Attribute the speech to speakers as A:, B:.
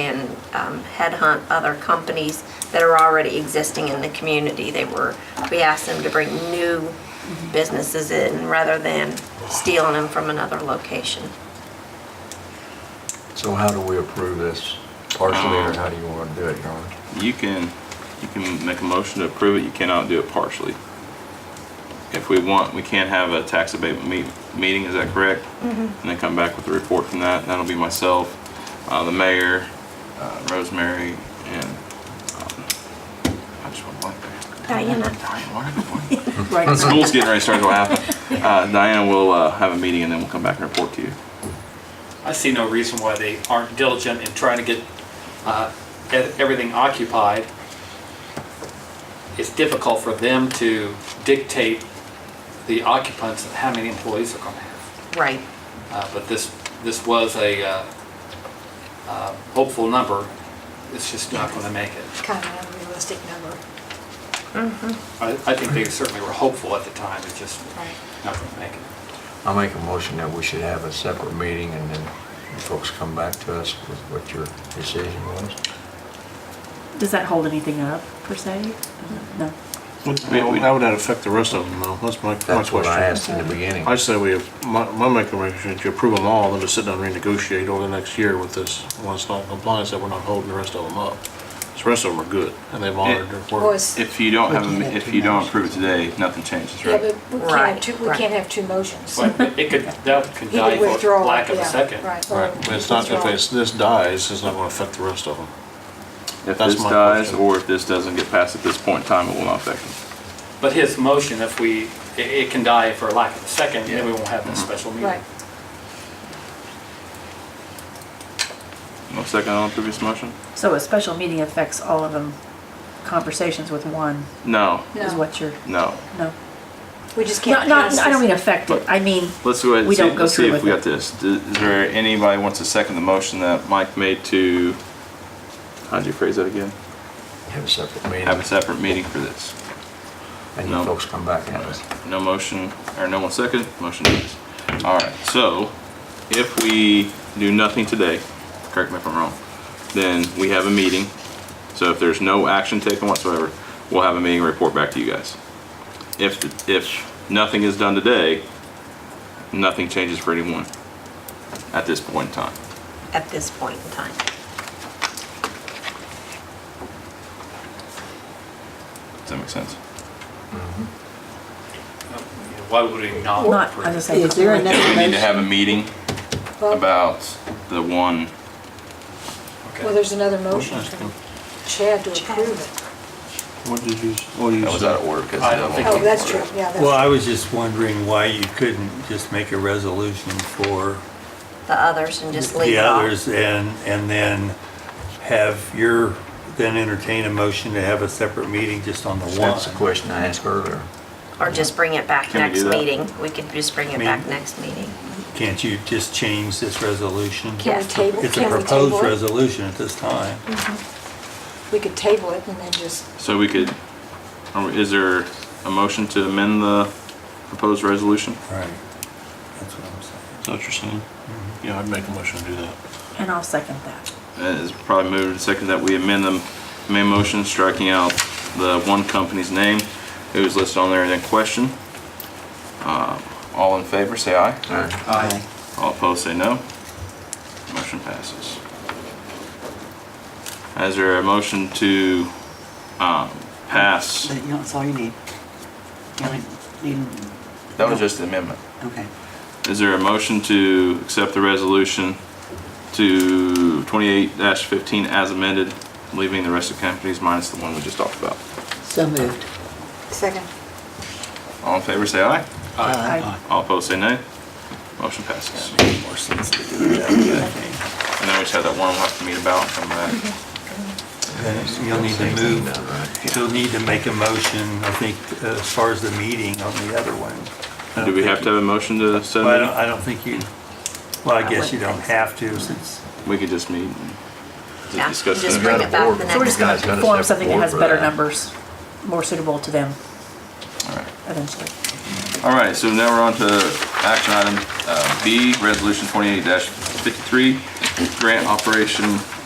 A: and um, headhunt other companies that are already existing in the community. They were, we asked them to bring new businesses in rather than stealing them from another location.
B: So how do we approve this partially, or how do you want to do it, Your Honor?
C: You can, you can make a motion to approve it, you cannot do it partially. If we want, we can have a tax abatement meet, meeting, is that correct? And then come back with a report from that, that'll be myself, uh, the mayor, uh, Rosemary, and, um, I just went blank there.
A: Diana?
C: Diane, why did I go blank?
D: Right.
C: School's getting ready to start, what happened? Uh, Diana will, uh, have a meeting and then we'll come back and report to you.
E: I see no reason why they aren't diligent in trying to get uh, e- everything occupied. It's difficult for them to dictate the occupants and how many employees they're going to have.
A: Right.
E: Uh, But this, this was a uh, uh, hopeful number. It's just not going to make it.
F: kind of an unrealistic number.
E: I I think they certainly were hopeful at the time, it's just
F: Right.
E: not going to make it.
B: I make a motion that we should have a separate meeting, and then you folks come back to us with what your decision was.
D: Does that hold anything up, per se? No.
G: What-
C: We- we-
G: How would that affect the rest of them, though? That's my, my
B: That's what I
G: question.
B: asked in the beginning.
G: I say we, have- my, my recommendation is you approve them all, then to sit down and renegotiate over the next year with this, once not in compliance, that we're not holding the rest of them up. 'Cause The rest of them are good, and they've honored their
F: Well,
G: word.
F: it's-
C: If you don't have, a me- if you don't approve it today, nothing changes,
F: yeah,
C: right?
F: but we can't
A: Right,
F: have two, we
A: right.
F: can't have two motions.
E: But it could, that could
F: He
E: die
F: could
E: for
F: withdraw.
E: lack of a
F: yeah,
E: second.
F: Right. or
G: Right, but it's not, if
F: withdraw.
G: it's, this dies, it's not gonna affect the rest of them.
C: If
G: That's
C: this
G: my
C: dies,
G: question.
C: or if this doesn't get passed at this point in time, it will not affect them.
E: But his motion, if we, it- it can die for lack of a second, then we won't have this special meeting.
F: Right.
C: No second on the previous motion?
D: So a special meeting affects all of them. Conversations with one
C: No,
D: is
F: No.
D: what you're,
C: no.
D: no.
F: We just can't
D: Not, not,
F: pass
D: I don't
F: this.
D: mean affected, I mean,
C: Let's go ahead and
D: We
C: see,
D: don't go
C: let's see
D: through
C: if
D: with
C: we got
D: it.
C: this. D- Is there anybody wants to second the motion that Mike made to, how'd you phrase that again?
B: Have a separate meeting,
C: Have a separate meeting for this.
B: and you
C: no.
B: folks come back at us.
C: No motion, or no one second, motion dies. All right, so if we do nothing today, correct me if I'm wrong, then we have a meeting. So if there's no action taken whatsoever, we'll have a meeting and report back to you guys. If, if nothing is done today, nothing changes for anyone at this point in time.
A: At this point in time.
C: Does that make sense?
E: Why would we not?
D: not,
E: approve?
D: as I say.
H: Is there
C: Do
H: another-
C: we need to have a meeting
F: Well-
C: about the one?
E: Okay.
F: Well, there's another motion from Chad to approve it.
G: What did you, what did you
C: That was
G: say?
C: out of order because.
E: I don't think
F: Oh, that's true, yeah,
H: Well,
F: that's,
H: I was just wondering why you couldn't just make a resolution for
A: The others and just leave
H: the
A: it off.
H: others and, and then have your, then entertain a motion to have a separate meeting just on the
B: That's the
H: one.
B: question I asked earlier.
A: Or just bring it back
C: Can we
A: next
C: do that?
A: meeting. We could just bring it
H: mean-
A: back next meeting.
H: Can't you just change this resolution?
F: can we
A: Yes.
F: table,
H: It's a
F: can we table
H: proposed
F: it?
H: resolution at this time.
F: We could table it and then just,
C: So we could, or is there a motion to amend the proposed resolution?
H: Right. That's what I'm saying.
G: Is that what you're saying? Yeah, I'd make a motion to do that.
D: And I'll second that.
C: Uh, It's probably moved and seconded that we amend the main motion, striking out the one company's name, who's listed on there and then question. Uh, All in favor, say aye.
B: All right.
C: All opposed, say no. Motion passes. Is there a motion to um, pass?
I: But, you know, That's all you need. You only need,
C: That was just the amendment.
I: okay.
C: Is there a motion to accept the resolution to 28-15 as amended, leaving the rest of companies minus the one we just talked about?
I: So moved.
F: second,
C: All in favor, say aye.
D: I-
C: All opposed, say nay. Motion passes.
I: Makes more sense to do it that way, I think.
C: And then we just have that one we'll have to meet about and come back.
H: Then You'll need to move, you'll need to make a motion, I think, uh, as far as the meeting on the other one. I don't
C: Do we have
H: think-
C: to have a motion to set
H: Well, I don't,
C: a
H: I don't think you, well, I guess you don't have to since,
C: meeting? We could just meet and
A: Yeah,
C: just discuss
A: just
C: it.
A: bring it back the next
D: So we're just gonna
B: Guys got a
D: form
B: separate
D: something that
B: board
D: has
B: for
D: better
B: that.
D: numbers, more suitable to them
C: All right.
D: eventually.
C: All right, so now we're on to action item uh, B, Resolution 28-53, Grant Operation